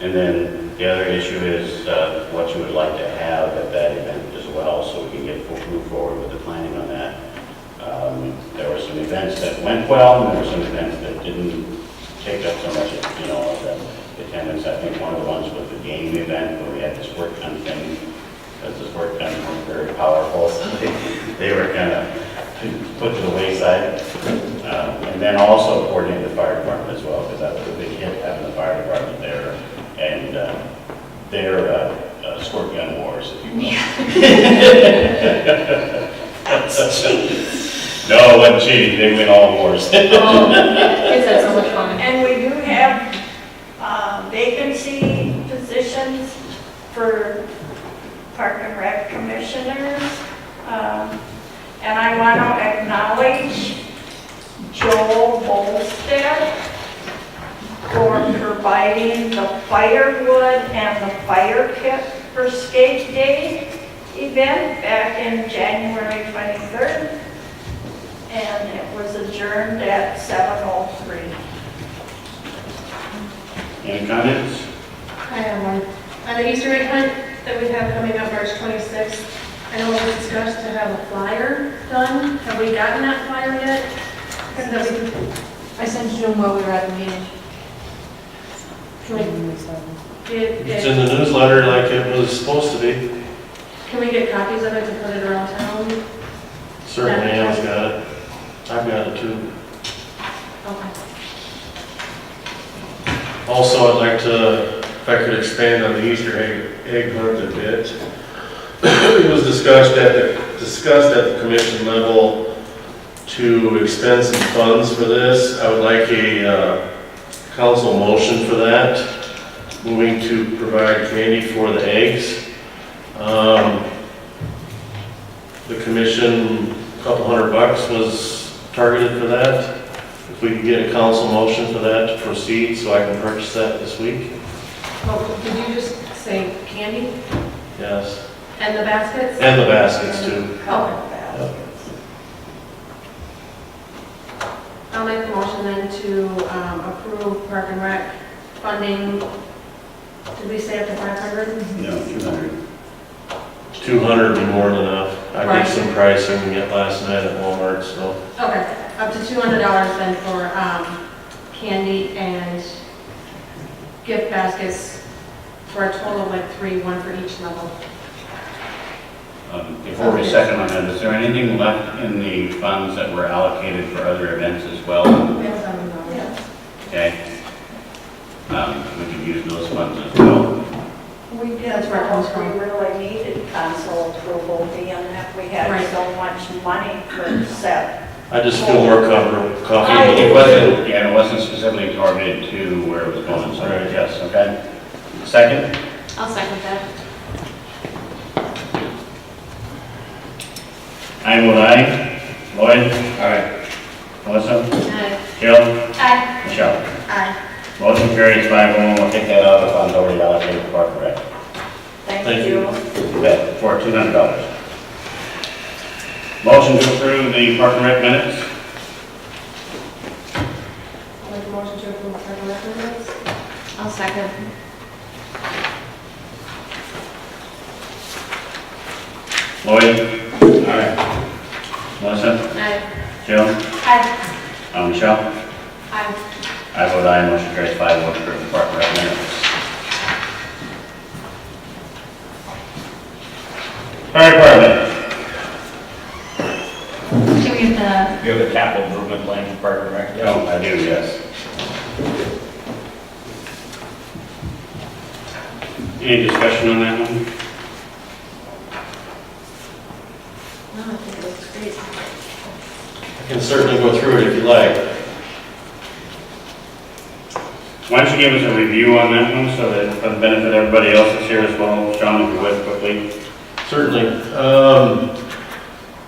And then the other issue is uh, what you would like to have at that event as well, so we can get, full- move forward with the planning on that. Um, There were some events that went well, and there were some events that didn't take up so much, you know, of the attendance. I think one of the ones was the game event, where we had this work done thing, because this work done was very powerful, so they- they were kind of put to the wayside. Um, And then also coordinate the fire department as well, because that was a big hit, having the fire department there, and uh, their uh, uh, squirt gun wars, if you will. No, it wasn't cheating, they win all wars. Kids had so much fun. And we do have uh, vacancy positions for Park and Rec commissioners. Um, And I want to acknowledge Joel Bolstead for providing the firewood and the fire kit for Skate Day event back in January 23rd. And it was adjourned at 7:03. Any comments? I have one. Uh, the Easter egg hunt that we have coming up March 26th, I know we discussed to have a flyer done. Have we gotten that flyer yet? Or that we can- I sent you them while we were at the meeting. Can we get- It's get, in the newsletter like it was supposed to be. can we get copies of it to put it around town? Certainly Ann's got it. I've got it too. Okay. Also, I'd like to, if I could expand on the Easter egg, egg hunt a bit. It was discussed at the, discussed at the commission level to expend some funds for this. I would like a, uh, council motion for that, moving to provide candy for the eggs. Um, the commission, a couple hundred bucks was targeted for that. If we could get a council motion for that to proceed, so I can purchase that this week? Well, did you just say candy Yes. and the baskets? And the baskets too. Okay. I'll make the motion then to um, approve Park and Rec funding, did we say up to 500? No, 200. Two hundred would be more than enough. I did some pricing we got last night at Walmart, so. Okay, up to $200 then for um, candy and gift baskets for a total of like three, one for each level. Um, Before we second on that, is there anything left in the funds that were allocated for other events as well? We have some, um, Okay. Um, We could use those funds as well. We did, That's where it comes we from. really needed council approval, being that we had Right. so much money for set. I just feel more comfortable, I- It comfortable with wasn't, yeah, it wasn't specifically targeted to where it was going, so, Right. yes, okay. Second, I'll second that. I vote aye. Lloyd? Aye. Melissa? Jill? Uh, Aye. Michelle? Aye. Motion carries five oh one, we'll take that out of the funds already allocated for Park and Rec. Thank Thank you. you. Bet for two hundred dollars. Motion to approve the park and rec minutes? I'll make the motion to approve Park and Rec minutes. I'll second. Lloyd? Aye. Melissa? Aye. Jill? Aye. Uh, Michelle? Aye. I vote aye, motion carries five oh one, approve the park and rec minutes. Fire department? Can we get You have a capital improvement plan for Park and Rec? No, Oh, I do, yes. Any discussion on that one? the, no, I think it looks great. I can certainly go through it if you like. Why don't you give us a review on that one, so that for the benefit of everybody else that's here as well, Sean, if you would quickly. Certainly. Um,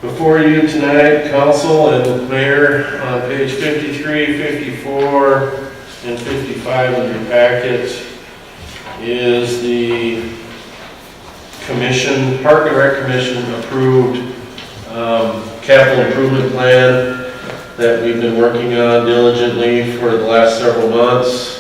Before you tonight, council and mayor, on page 53, 54, and 55 of your packet is the commission, Park and Rec Commission approved um, capital improvement plan that we've been working on diligently for the last several months.